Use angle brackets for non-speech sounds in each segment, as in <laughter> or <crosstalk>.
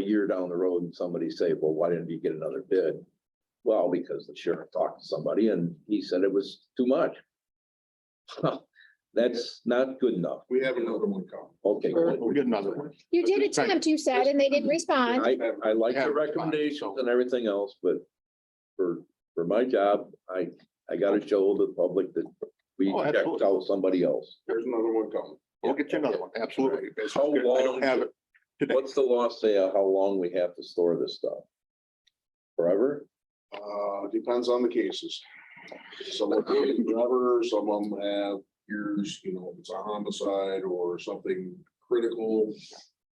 year down the road and somebody say, well, why didn't you get another bid? Well, because the sheriff talked to somebody and he said it was too much. <laughs> That's not good enough. We have another one coming. Okay, Sure. good. We'll get another one. You did Thank you. attempt, you said, and they didn't respond. I, I like the Yeah, fine, recommendations so- and everything else, but for, for my job, I, I gotta show the public that we Oh, checked absolutely. out somebody else. There's another one coming. We'll get you another one, absolutely. It's- How I don't have it. today. What's the law say on how long we have to store this stuff? Forever? Uh, depends on the cases. Some of them take forever, some of them have years, you know, if it's a homicide or something critical.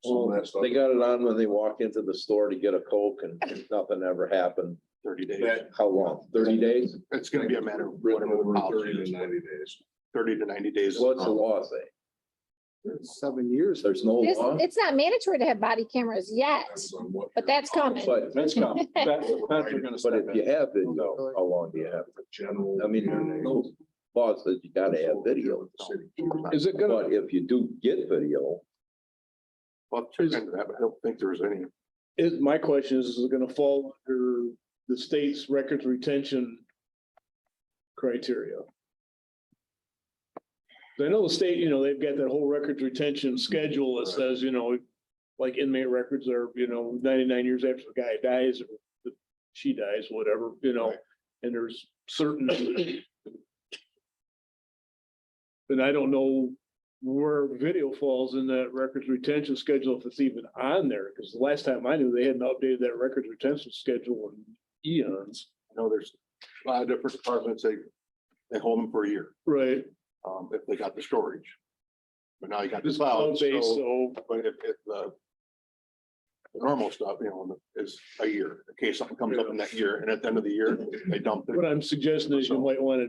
Some of that stuff. Oh, They got it on when they walk into the store to get a Coke and nothing ever happened. thirty days. That, How long? Thirty days? It's gonna be a matter of written whatever over the policy thirty is, to ninety days. thirty to ninety days. is What's the normal. law say? Seven years. There's no This, law, it's not mandatory to have body cameras yet, Depends on what but that's coming. but, That's coming. That's, that's we're gonna but step if you have video, how long do you have? the general. I mean, there's no laws that you gotta have video. in. Is it gonna, But if you do get video, Well, check into that, but I don't think there's any. is, my question is, is it gonna fall under the state's records retention criteria? 'Cause I know the state, you know, they've got that whole records retention schedule that says, you know, like inmate records are, you know, ninety-nine years after the guy dies, or the- she dies, whatever, you know, Right. and there's certain. And I don't know where video falls in that records retention schedule, if it's even on there, because the last time I knew, they hadn't updated that records retention schedule in eons. I know there's a lot of different departments, they, they hold them for a year, Right. um, if they got the storage. But now you got the This cloud, cloud base, so, so, but if, if the the normal stuff, you know, is a year, in case something comes up in that year, and at the end of the year, they dump it. what I'm suggesting is you might want to.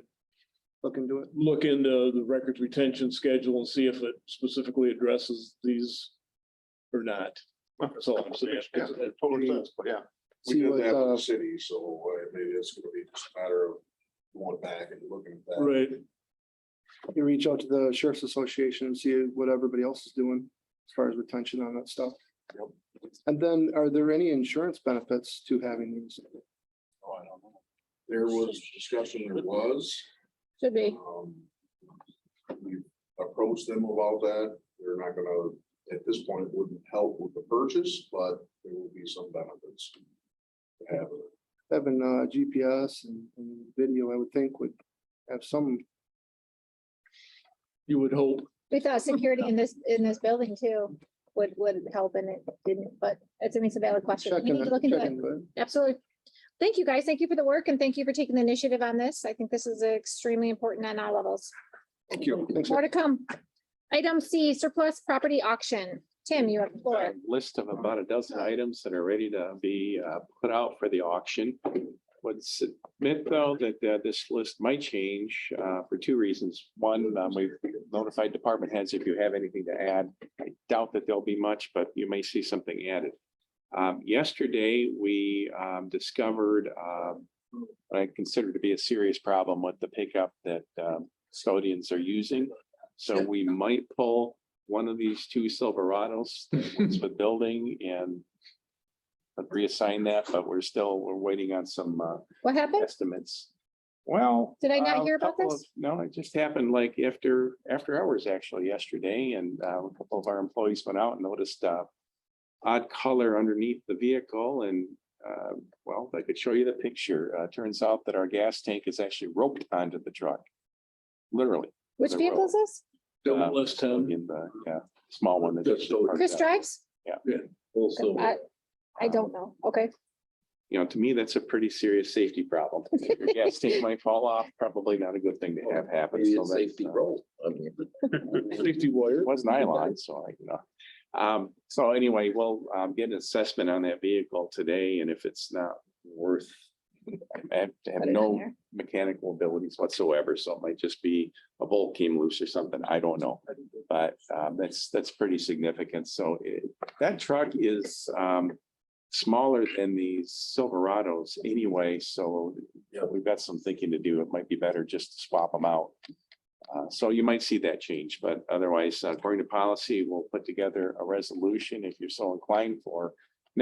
Look into it. Look into the records retention schedule and see if it specifically addresses these or not. That's all I'm saying. Yeah, Totally sense, but yeah. We did that uh, with the city, so uh, maybe it's gonna be just a matter of going back and looking at that. Right, you reach out to the sheriff's association and see what everybody else is doing as far as retention on that stuff. Yep. And then are there any insurance benefits to having these? Oh, I don't know. There was discussion, there was. Should be. um, We approached them about that. They're not gonna, at this point, it wouldn't help with the purchase, but there will be some benefits. to have it. Having uh GPS and and video, I would think would have some, you would hope. We thought security in this, in this building too would, would help and it didn't, but it's, I mean, it's a valid question. check We need in to look into check it. into it. Absolutely. Thank you, guys. Thank you for the work and thank you for taking the initiative on this. I think this is extremely important on all levels. Thank you. Thanks. More to come. Item C, surplus property auction. Tim, you have the floor. list of about a dozen items that are ready to be uh, put out for the auction. Would submit though that uh, this list might change uh, for two reasons. One, um, we've notified department heads if you have anything to add. I doubt that there'll be much, but you may see something added. Um, Yesterday, we um, discovered um, what I consider to be a serious problem with the pickup that um, custodians are using. So we might pull one of these two Silverados it's with building and I'd reassign that, but we're still, we're waiting on some uh, What happened? estimates. Well. Did I not uh, hear about couple this? of- No, it just happened like after, after hours actually yesterday and uh, a couple of our employees went out and noticed uh, odd color underneath the vehicle and uh, well, I could show you the picture. Uh, Turns out that our gas tank is actually roped onto the truck. Literally. Which the vehicle road. is this? Don't list him. In the, yeah, small one. that Just just so- parked Chris out. drives? full silver. I- I don't know. Okay. you know, to me, that's a pretty serious safety problem. If Your <laughs> gas tank might fall off, probably not a good thing to have happen. Maybe So it's that's, safety uh, roll. I mean, Safety wire. It was nylon, so I, you know. Um, so anyway, we'll, um, get an assessment on that vehicle today and if it's not worth, I have to have Put it on no there. mechanical abilities whatsoever, so it might just be a bolt came loose or something, I don't know. But um, that's, that's pretty significant, so it, that truck is um, smaller than the Silverados anyway, so Yeah. we've got some thinking to do, it might be better just to swap them out. Uh, So you might see that change, but otherwise, uh, according to policy, we'll put together a resolution if you're so inclined for